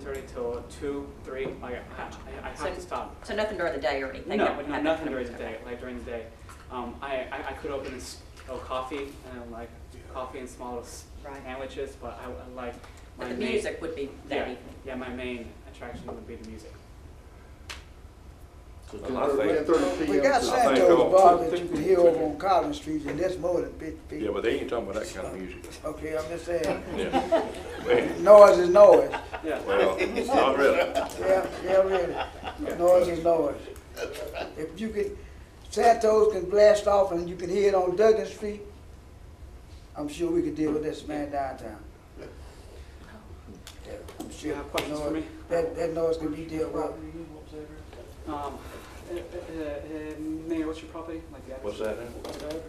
thirty till two, three, like, I, I- I have to So- stop. So nothing during the day or anything? that No, would no, have nothing that during the kind day, of- like during the day. Um, I, I, I could open a s- a coffee and like coffee and small little s- Right. sandwiches, but I would like. my But the main- music would be that Yeah, evening. yeah, my main attraction would be the music. So I ten think- thirty, ten thirty We P M. got to- think Santos all- Bar that you can hear over on Collins Street, and that's more than fifty Yeah, people. but they ain't talking about that kind of music. Okay, I'm just saying, Yeah. Man, noise is noise. Yeah, Well, not really. Yeah, yeah, really. Noise is noise. If you can, Santos can blast off and you can hear it on Duggan Street, I'm sure we could deal with this man downtown. Yeah, I'm do sure Oh. you have questions for me? That, that noise can be dealt with. Uh, Um, uh, uh, uh, Mayor, what's your property? Like the address? What's that now?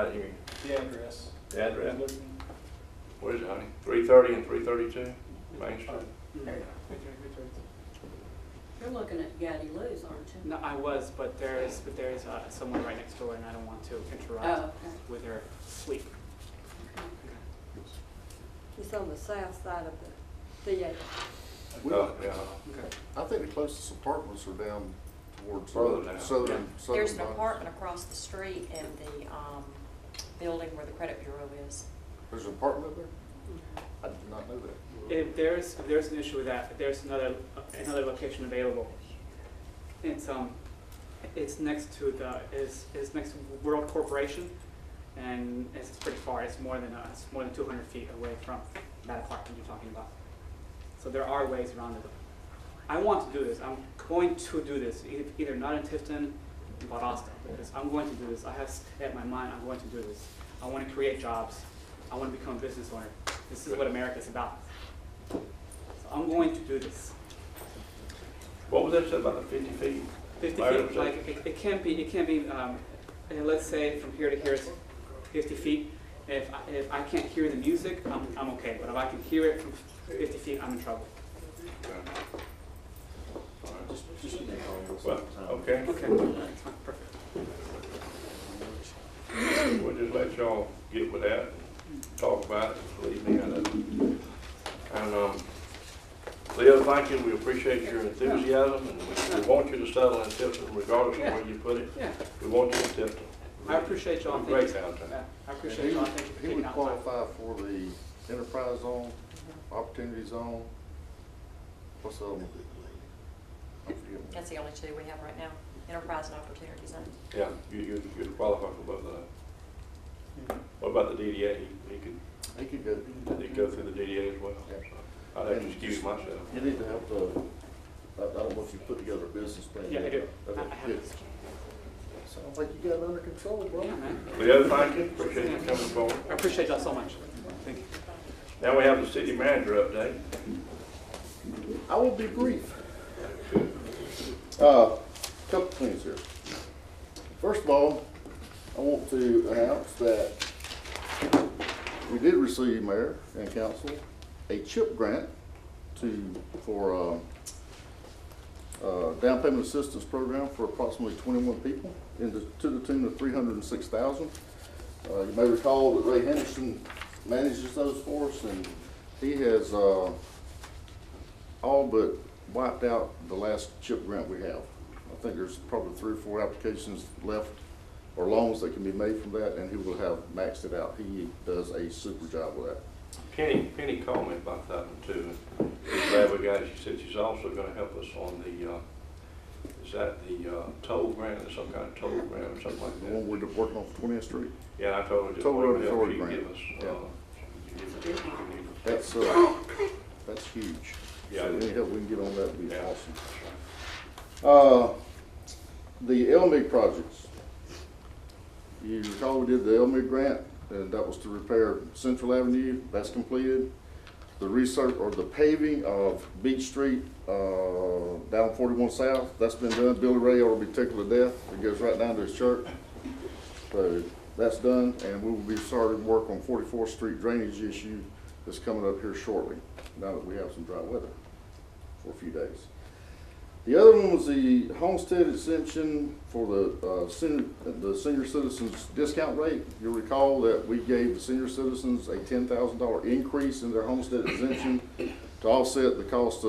I didn't hear you. The address. The address? What is it, honey? Three thirty and three thirty-two, Main Uh, Street? Mm, There you go. good choice, good choice. You're looking at Gaddy Lou's, aren't you? No, I was, but there is, but there is uh, someone right next door and I don't want to Oh, interrupt okay. with her sleep. It's on the south side of the theater. We- Oh, yeah. Okay. I think the closest apartments are down towards Uh, Further down, uh, southern, southern. There's an Bronx. apartment across the street in the um, building where the credit bureau is. There's an apartment there? I did not know that. If there's, if there's an issue with that, there's another, another location available. It's, um, it's next to the, is, is next to World Corporation, and it's pretty far, it's more than, uh, it's more than two hundred feet away from that apartment you're talking about. So there are ways around it. I want to do this, I'm going to do this, e- either not in Tifton, but Austin, because I'm going to do this, I have set my mind, I'm going to do this. I wanna create jobs, I wanna become a business owner, this is what America's about. So I'm going to do this. What was that said about the fifty feet? 50 Larry, was feet, that- like, it- it can't be, it can't be, um, and let's say from here to here it's 50 feet. If, I- if I can't hear the music, I'm, I'm okay, but if I can hear it from 50 feet, I'm in trouble. Alright. Just give me a call. Well, okay, Okay, that's fine, perfect. we'll just let y'all get with that, talk about it, believe me, I know. And, um, Leo, thank you, we appreciate your enthusiasm, and we- we want you to settle in Tifton regardless of where you put it. Yeah, We want you in Tifton. I appreciate y'all, thank you. Great downtown. Yeah, I And appreciate y'all, thank you for He taking would out time. qualify for the enterprise zone, Mm-hmm. opportunity zone. What's the other one? I'm forgetting. That's the only two we have right now, Enterprise and Opportunity Zone. Yeah, you, you, you'd qualify for both of those. What about the DDA? He could, He could go. he could go through the DDA as well. Yeah. I'd have to excuse myself. You need to have the, I I don't know if you put together a business plan. Yeah, I yet. do, I Okay, I have good. this. Sounds like you got it under control, bro. Yeah, man, Leo, thank you, appreciate you coming forward. I appreciate y'all so much, thank you. Now we have the city manager update. I will be brief. Uh, couple things here. First of all, I want to announce that we did receive, Mayor and Council, a CHIP grant to, for, um, uh, down payment assistance program for approximately twenty-one people in the, to the tune of three hundred and six thousand. Uh, you may recall that Ray Henderson manages those for us and he has, uh, all but wiped out the last chip grant we have. I think there's probably three or four applications left or loans that can be made from that, and he will have maxed it out. He does a super job with that. Penny, Penny called me about that one too. and She's glad we got it. She said she's also gonna help us on the, uh, is that the, uh, toll grant, or some kind of toll grant or something like The that? one we're working on Twentieth Street, Yeah, I told her just. Toll Road whatever help Authority she can grant. Give us, Yeah. uh, she can give us what we need. that's, uh, that's huge. Yeah. So any help we can get on that would be Yeah. awesome. Uh, the Elmeg projects. You recall we did the Elmeg grant, and that was to repair Central Avenue, that's completed. The research, or the paving of Beach Street, uh, down forty-one south, that's been done, Billy Ray ought to be tickled to death, it goes right down to his church. So that's done, and we will be starting work on Forty-fourth Street drainage issue that's coming up here shortly, now that we have some dry weather for a few days. The other one was the homestead exemption for the, uh, senior, the senior citizens discount rate. You'll recall that we gave the senior citizens a ten thousand dollar increase in their homestead exemption to offset the cost of.